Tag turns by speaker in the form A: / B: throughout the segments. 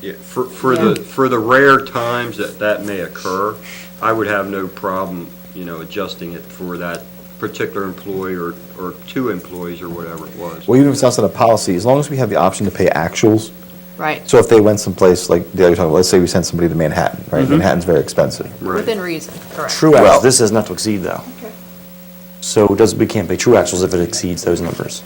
A: yeah, for, for the, for the rare times that that may occur, I would have no problem, you know, adjusting it for that particular employee or, or two employees or whatever it was.
B: Well, even if it's outside of policy, as long as we have the option to pay actuals,
C: Right,
B: so if they went someplace, like the other talking about, let's say we sent somebody to Manhattan, right? Manhattan's very expensive.
C: within reason, correct.
D: True
B: Well-
D: actuals, this says not to exceed though. So it does, we can't pay true actuals if it exceeds those numbers.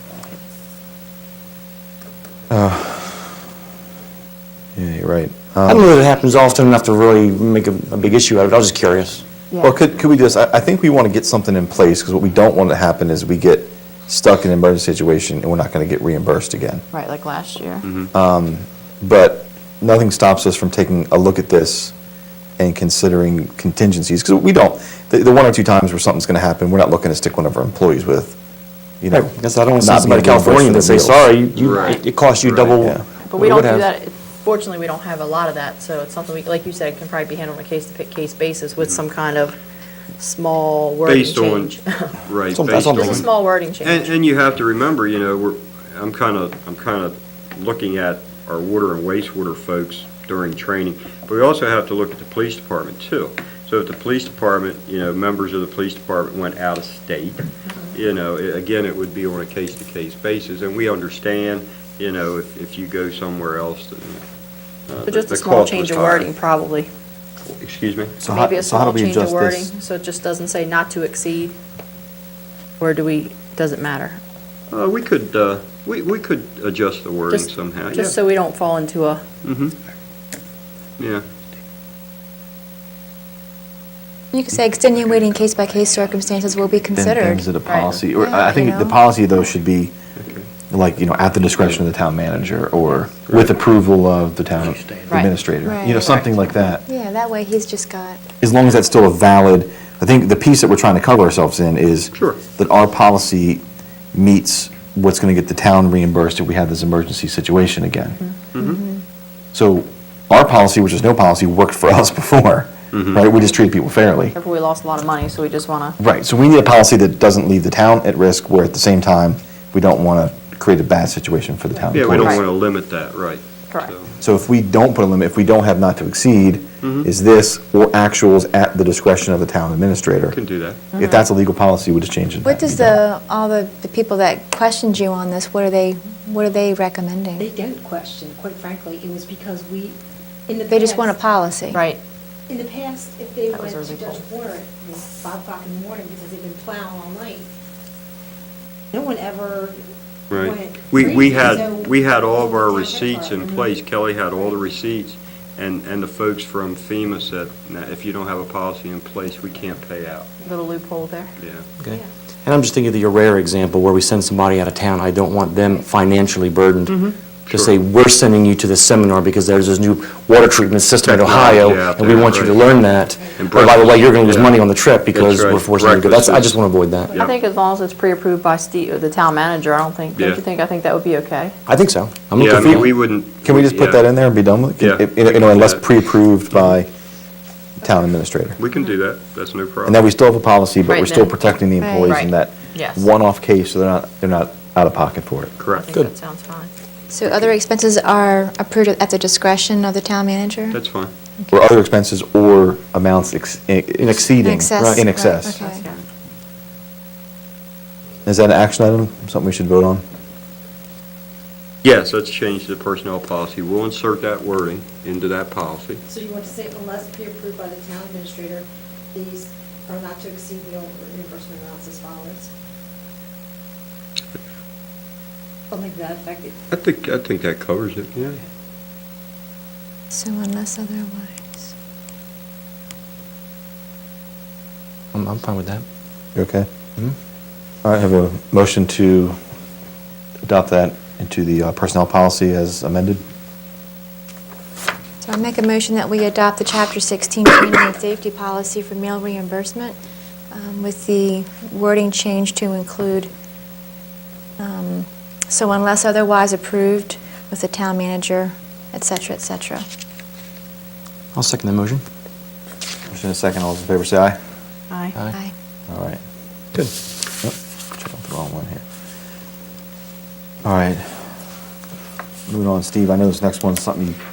B: Yeah, you're right.
D: I don't know that it happens often enough to really make a, a big issue out of it, I was just curious.
B: Well, could, could we just, I, I think we want to get something in place, because what we don't want to happen is we get stuck in an emergency situation and we're not going to get reimbursed again.
C: Right, like last year.
A: Mm-hmm.
B: But nothing stops us from taking a look at this and considering contingencies, because we don't, the, the one or two times where something's going to happen, we're not looking to stick one of our employees with, you know.
D: Because I don't want to
B: not
D: send somebody to
B: being reimbursed
D: California
B: for
D: and
B: their
D: say,
B: meals.
D: sorry, you- you,
A: Right.
D: it it cost you
A: Right.
D: double.
B: Yeah.
C: But we don't
D: what it
C: do
D: would have.
C: that, fortunately, we don't have a lot of that, so it's something, we like you said, it can probably be handled on a case-to-case basis with some kind of small wording
A: Mm-hmm. Based on,
C: change.
A: right,
D: That's what- that's
A: based
D: what
A: on.
D: I'm
C: Just a small wording change.
A: And, and you have to remember, you know, we're, I'm kind of, I'm kind of looking at our water and wastewater folks during training, but we also have to look at the police department too. So if the police department, you know, members of the police department went out of state,
C: Mm-hmm.
A: you know, i- again, it would be on a case-to-case basis, and we understand, you know, if, if you go somewhere else, the, uh,
C: But just
A: the
C: a small
A: cost
C: change of
A: was higher.
C: wording, probably.
A: Excuse me?
B: So how-
C: Maybe a
B: so how do
C: small
B: we
C: change of
B: adjust
C: wording,
B: this?
C: so it just doesn't say not to exceed. Or do we, does it matter?
A: Uh, we could, uh, we, we could adjust the wording
C: Just-
A: somehow, yeah.
C: Just so we don't fall into a,
A: Yeah.
E: You could say extenuating case-by-case circumstances will be
B: Then
E: considered.
B: things that a policy, or
E: Yeah,
B: I I think
E: you
B: the
E: know.
B: policy though should be like, you know, at the discretion of the town manager or with approval of the town administrator. You know,
E: Right.
B: something like that.
E: Yeah, that way he's just got,
B: As long as that's still a valid, I think the piece that we're trying to cover ourselves in is
A: Sure.
B: that our policy meets what's going to get the town reimbursed if we have this emergency situation again.
E: Mm-hmm.
B: Mm-hmm. So our policy, which is no policy, worked for us before, right? We just treat people fairly.
C: therefore we lost a lot of money, so we just want to,
B: Right, so we need a policy that doesn't leave the town at risk, where at the same time, we don't want to create a bad situation for the town
A: Yeah, we don't
C: Right.
B: employees.
A: want to limit that, right.
C: correct.
A: So-
B: So if we don't put a limit, if we don't have not to exceed,
A: Mm-hmm.
B: is this or actuals at the discretion of the town administrator?
A: Can do that.
B: If that's a legal policy, we just change it.
E: what does the, all the, the people that questioned you on this, what are they, what are they
F: They
E: recommending?
F: don't question, quite frankly, it was because we, in the past.
E: They just want a policy.
C: Right,
F: In the past, if they
C: That
F: went
C: was
F: to
C: early
F: Judge Warren, it was five o'clock in the morning because they've been plowing all night. No one ever
A: Right.
F: went.
A: We, we
F: crazy, so-
A: had, we had all of our
F: Yeah,
A: receipts in
F: mhm.
A: place. Kelly had all the receipts, and, and the folks from FEMA said, "Now, if you don't have a policy in place, we can't pay out."
C: little loophole there.
A: Yeah.
D: Okay.
F: Yeah.
D: And I'm just thinking of your rare example where we send somebody out of town, I don't want them financially
C: Mm-hmm.
D: burdened. To say,
A: Sure.
D: we're sending you to this seminar because there's this new water treatment system in
A: Technology
D: Ohio,
A: out
D: and we
A: there,
D: want you to
A: right.
D: learn that.
A: And
D: And by the way, you're gonna lose
A: breakfast,
D: money
A: yeah.
D: on the trip because
A: right,
D: we're forcing you to go. That's, I
A: breakfast
D: just
A: is-
D: wanna avoid that.
C: I think as long as it's pre-approved by Steve, the town manager, I don't think, don't
A: Yeah.
C: you think, I think that would be okay?
D: I think so. I'm
A: Yeah, I
D: looking for
A: mean,
D: that.
A: we wouldn't.
B: Can we just put
A: yeah.
B: that in there and be done with
A: Yeah,
B: it? You know,
A: we
B: You know,
A: can do
B: unless
A: that.
B: pre-approved by town administrator.
A: We can do that. That's no problem.
B: And then we still have a policy, but
C: Right,
B: we're still
C: then.
B: protecting the
E: Right.
B: employees
C: Right.
B: in that
C: Yes.
B: one-off case, so they're not, they're not out of pocket for it.
C: I
A: Correct.
C: think that sounds fine.
E: So other expenses are approved at the discretion of the town manager?
A: That's fine.
B: Or other expenses or amounts ex- i-
E: In
B: exceeding.
E: excess,
B: In
E: right,
B: excess.
E: okay.
C: Yeah.
B: Is that an action item, something we should vote on?
A: Yes, let's change the personnel policy. We'll insert that wording into that policy.
F: So you want to say unless pre-approved by the town administrator, these are not to exceed the reimbursement amounts as follows? Something to that effect.
A: I think, I think that covers it, yeah.
E: So unless otherwise.
D: I'm, I'm fine with that.
B: You okay? All right, I have a motion to adopt that into the uh, personnel policy as amended.
E: So I make a motion that we adopt the Chapter 16 Training and Safety Policy for meal reimbursement um, with the wording change to include, um, so unless otherwise approved with the town manager, et cetera, et cetera.
D: I'll second the motion.
B: Motion and a second, all those in favor say aye.
C: Aye.
E: Aye.
B: All right. Good. Nope, check out the wrong one here. All right. Moving on, Steve, I know this next one's something you